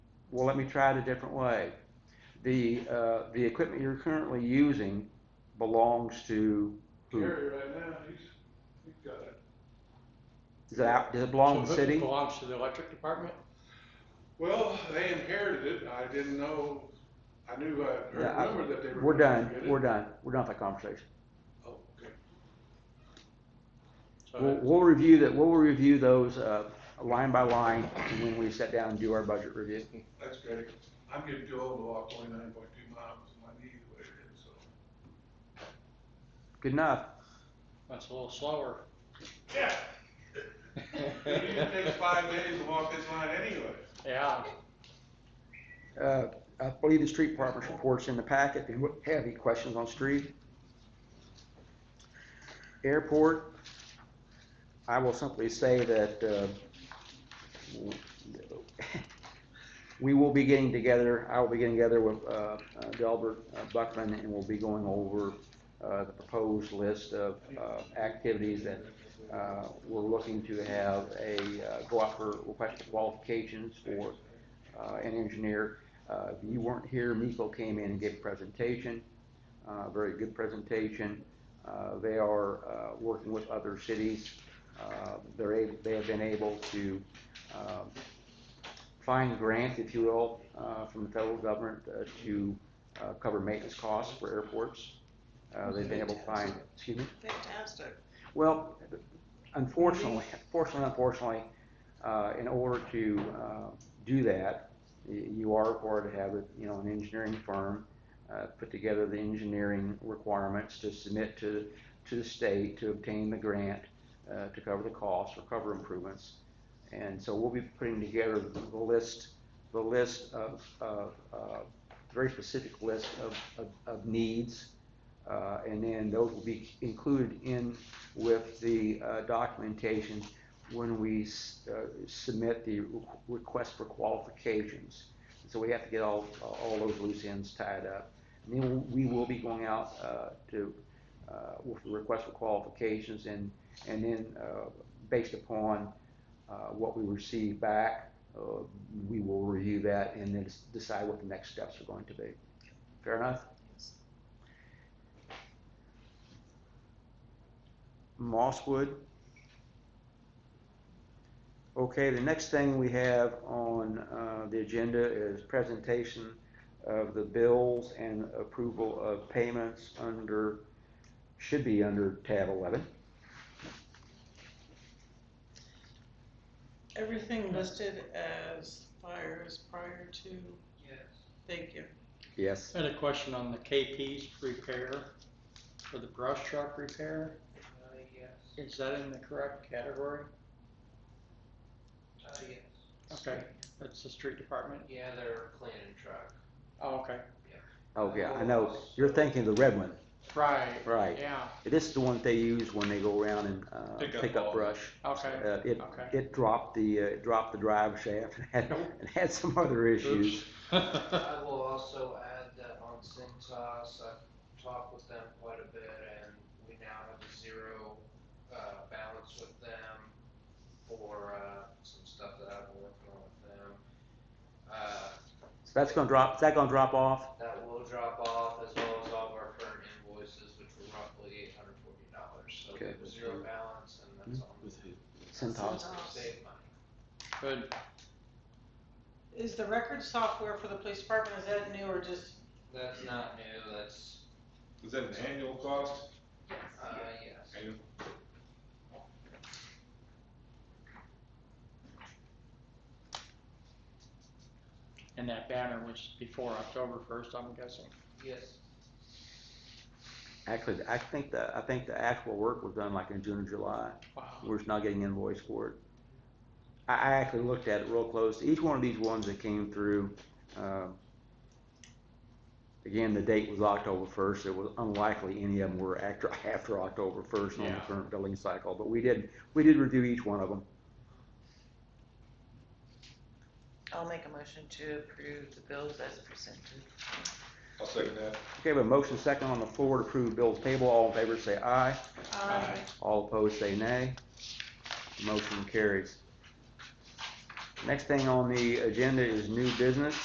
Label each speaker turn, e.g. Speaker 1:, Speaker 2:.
Speaker 1: well, let me try it a different way. The, uh, the equipment you're currently using belongs to who?
Speaker 2: Gary right now, he's, he's got it.
Speaker 1: Does it, out- does it belong to the
Speaker 3: So who
Speaker 1: city?
Speaker 3: Belongs to the electric department?
Speaker 2: Well, they inherited it, I didn't know, I knew, I
Speaker 1: Yeah,
Speaker 2: heard
Speaker 1: I-
Speaker 2: rumor that they were.
Speaker 1: We're
Speaker 2: gonna
Speaker 1: done,
Speaker 2: get it.
Speaker 1: we're done, we're done with that conversation.
Speaker 2: Oh, okay.
Speaker 3: So
Speaker 1: We'll, we'll review that, we'll review those, uh, line by line when we sit down and do our budget review.
Speaker 2: That's great. I'm getting too old to walk twenty-nine point two miles, my knee is way it is, so.
Speaker 1: Good enough.
Speaker 3: That's a little slower.
Speaker 2: Yeah. It usually takes five days to walk this line anyway.
Speaker 3: Yeah,
Speaker 1: Uh, I believe the street department's report's in the packet, if you have any questions on street. Airport, I will simply say that, uh, w- we will be getting together, I will be getting together with, uh, uh, Delbert uh, Buckman, and we'll be going over, uh, the proposed list of, uh, activities that, uh, we're looking to have a, uh, go out for request for qualifications for, uh, an engineer. Uh, if you weren't here, Miko came in and gave a presentation, uh, very good presentation. Uh, they are, uh, working with other cities. Uh, they're able, they have been able to, um, find grants, if you will, uh, from the federal government uh, to, uh, cover maintenance costs for airports. Uh, they've been able to find, excuse me?
Speaker 4: Fantastic.
Speaker 1: Well, unfortunately, fortunately, unfortunately, uh, in order to, uh, do that, y- you are required to have, a, you know, an engineering firm, uh, put together the engineering requirements to submit to, to the state to obtain the grant, uh, to cover the costs or cover improvements. And so we'll be putting together the list, the list of, of, uh, very specific list of, of, of needs. Uh, and then those will be included in with the uh, documentation when we s- uh, submit the re- request for qualifications. So we have to get all, all those loose ends tied up. And then we will be going out uh, to, uh, with the request for qualifications and, and then uh, based upon uh, what we receive back, uh, we will review that and then s- decide what the next steps are going to be. Fair enough? Mosswood. Okay, the next thing we have on uh, the agenda is presentation of the bills and approval of payments under, should be under tab 11.
Speaker 4: Everything listed as fires prior to?
Speaker 2: Yes.
Speaker 4: Thank you.
Speaker 1: Yes.
Speaker 3: had a question on the KP's repair, for the brush truck repair,
Speaker 5: Uh, yes,
Speaker 3: is that in the correct category?
Speaker 5: uh, yes.
Speaker 3: Okay, that's the street department,
Speaker 5: Yeah, they're cleaning truck.
Speaker 3: oh, okay,
Speaker 1: Oh, yeah, I know. You're thinking of the red one,
Speaker 3: right,
Speaker 1: right.
Speaker 3: yeah,
Speaker 1: This is the one they use when they go around and uh,
Speaker 6: Pick up
Speaker 1: pick up
Speaker 6: all-
Speaker 1: brush.
Speaker 3: okay,
Speaker 1: Uh, It,
Speaker 3: okay.
Speaker 1: it dropped the, uh, it dropped the drive shaft and had, and had some other issues.
Speaker 3: Oops.
Speaker 5: I will also add that on Cintas, I've talked with them quite a bit and we now have a zero, uh, balance with them for, uh, some stuff that I've been working on with them. Uh,
Speaker 1: So that's gonna drop, is that gonna drop off?
Speaker 5: that will drop off as well as all of our current invoices, which were roughly eight hundred forty dollars. So we
Speaker 1: Okay. Hmm.
Speaker 5: have a zero balance and that's on,
Speaker 1: Centos.
Speaker 5: save money.
Speaker 3: Good,
Speaker 4: Is the record software for the police department, is that new or just?
Speaker 5: That's not new, that's,
Speaker 6: Is that an annual cost?
Speaker 5: uh, yes.
Speaker 6: Annual.
Speaker 3: and that banner was before October first, I'm guessing,
Speaker 5: Yes,
Speaker 1: Actually, I think the, I think the actual work was done like in June or July.
Speaker 3: wow,
Speaker 1: We're just not getting invoiced for it. I, I actually looked at it real close. Each one of these ones that came through, um, again, the date was October first. It was unlikely any of them were after, after October first on the
Speaker 3: Yeah.
Speaker 1: current billing cycle. But we did, we did review each one of them.
Speaker 4: I'll make a motion to approve the bills as presented.
Speaker 6: I'll second that.
Speaker 1: Okay, but motion second on the floor to approve bills table. All in favor, say aye.
Speaker 4: Aye.
Speaker 1: All opposed, say nay. Motion carries. Next thing on the agenda is new business.